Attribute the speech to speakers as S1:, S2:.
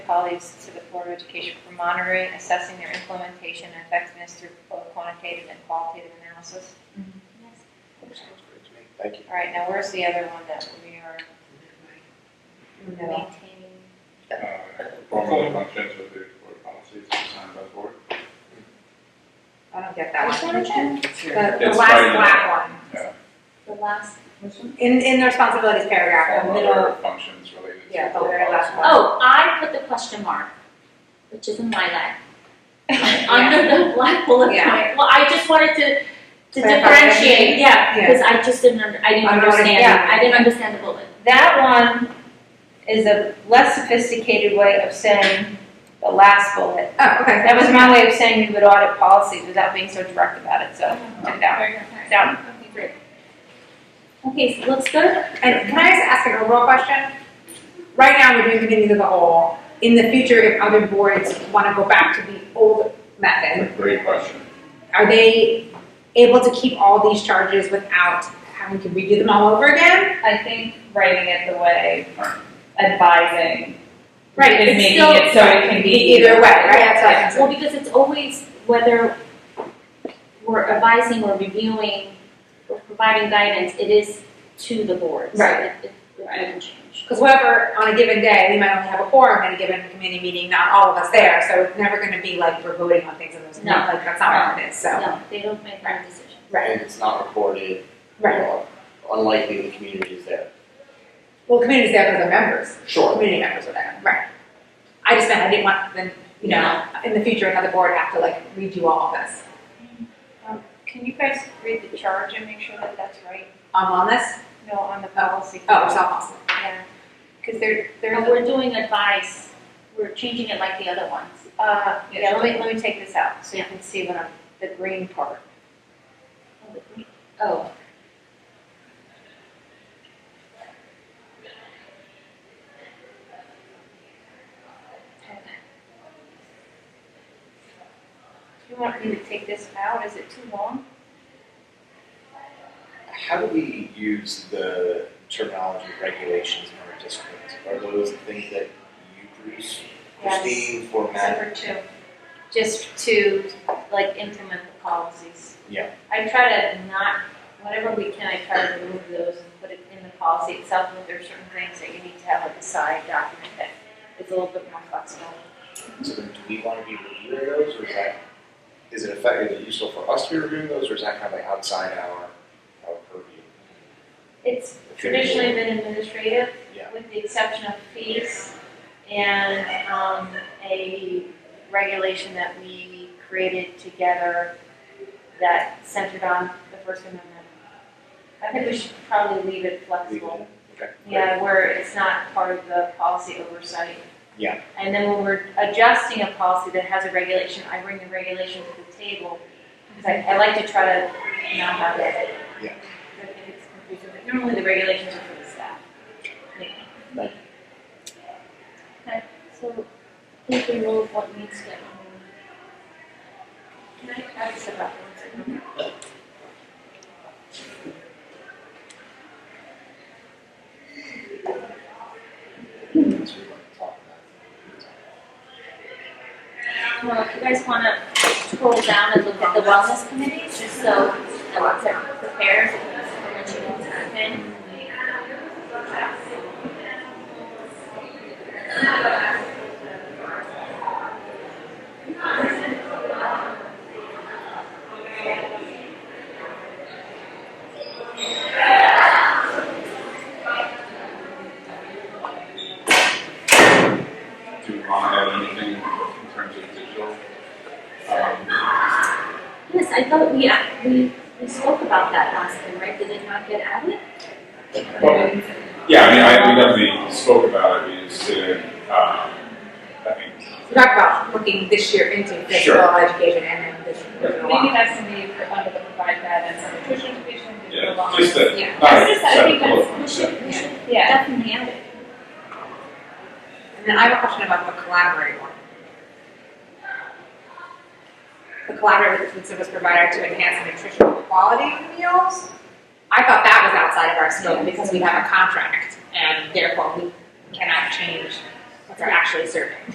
S1: colleagues to the Board of Education for monitoring, assessing their implementation and effectiveness through both quantitative and qualitative analysis.
S2: Sounds great to me. Thank you.
S1: All right, now where's the other one that we are
S3: No.
S1: maintaining?
S4: uh, formal functions with the board policies signed by the board.
S3: I don't get that one.
S1: Which one is it?
S3: The, the
S4: It's
S3: last
S4: right.
S3: black one.
S1: The last,
S3: In, in the responsibilities paragraph, the
S4: Formal
S3: middle,
S4: other functions related to.
S3: Yeah, the
S4: board
S3: very last
S4: policy.
S3: one.
S5: Oh, I put the question mark, which is in my leg,
S3: yeah.
S5: under the black bullet point.
S3: Yeah.
S5: Well, I just wanted to, to
S3: Clarify.
S5: differentiate, yeah,
S3: Yeah.
S5: because I just didn't, under- I didn't
S3: I don't
S5: understand, it.
S3: understand.
S5: I didn't understand the bullet.
S1: that one is a less sophisticated way of saying the last bullet.
S3: Oh, okay.
S1: That was my way of saying we would audit policies without being so direct about it, so took that one.
S5: Okay,
S1: Down.
S5: great. Okay, so let's go to
S3: And can I just ask an overall question? Right now, we're doing committees as a whole. In the future, if other boards want to go back to the old method,
S4: Great question.
S3: are they able to keep all these charges without having to redo them all over again?
S6: I think writing it the way advising
S3: Right,
S6: is
S5: it's
S6: making
S5: still-
S6: it so it can be
S3: e-, Either way, right? That's what I'm
S5: Well, because it's always whether we're advising or reviewing or providing guidance, it is to the board. So
S3: Right.
S5: it- it- It doesn't change.
S3: Because whatever, on a given day, we might only have a quorum in a given committee meeting, not all of us there, so it's never gonna be like we're voting on things and there's
S5: No.
S3: not, like, that's not what it is, so.
S5: No, they don't make that decision.
S3: Right,
S2: And it's not recorded.
S3: right.
S2: or Unlikely the community is there.
S3: Well, committee's there for the members,
S2: Sure.
S3: community members are there, right. I just meant I didn't want them, you know, in the future, another board have to like redo all of this.
S1: Can you guys read the charge and make sure that that's right?
S3: Um, On wellness,
S1: No, on the policy.
S3: oh, it's all possible.
S1: Yeah, because there,
S5: But
S1: there's,
S5: we're doing advice, we're changing it like the other ones.
S1: uh, yeah, let me, let me take this out, so you
S5: Yeah.
S1: can see what I'm, the green part.
S5: Oh,
S1: Do you want me to take this out, is it too long?
S2: How do we use the terminology regulations in our district? Are those the things that you produce, Christine, for Matt?
S1: Number two, just to like implement the policies.
S2: Yeah.
S1: I try to not, whenever we can, I try to remove those and put it in the policy itself, but there are certain things that you need to have like a side document that is a little bit more flexible.
S2: So then do we want to be reviewing those or is that, is it effective, is it useful for us to be reviewing those or is that kind of like outside our, our purview?
S1: It's traditionally been administrative,
S2: Yeah.
S1: with the exception of fees and um, a regulation that we created together that centered on the First Amendment. I think we should probably leave it flexible,
S2: Okay.
S1: yeah, where it's not part of the policy oversight.
S2: Yeah.
S1: And then when we're adjusting a policy that has a regulation, I bring the regulation to the table, because I, I like to try to not have it I think it's confusing, but normally the regulations are for the staff.
S2: Right.
S1: Okay, so
S5: please remove what needs to get removed.
S1: can I ask this about one second?
S2: That's what we want to talk about.
S5: Well, if you guys want to scroll down and look at the wellness committees, just so that once everyone's prepared, and then you know what's happening.
S4: Do you want to add anything in terms of digital? Um,
S5: Yes, I thought we, uh, we, we spoke about that last time, right? Did it not get added?
S4: well, Yeah, I mean, I, we definitely spoke about it, we just didn't, um, I think,
S3: We talked about looking this year into physical
S4: Sure.
S3: education and then this.
S6: Maybe that's something for
S1: uh,
S6: under the provide guidance on nutrition education. digital
S4: yeah,
S6: wellness.
S4: just a,
S3: Yeah.
S4: not
S5: Yes, I
S4: a
S5: think
S4: separate bullet
S5: that's, we
S4: point,
S5: should, we should
S6: Yeah.
S5: definitely add it.
S3: And then I have a question about the collaborate one. The collaborate with the food service provider to enhance the nutritional quality of meals. I thought that was outside of our scope because we have a contract and therefore we cannot change what they're actually serving.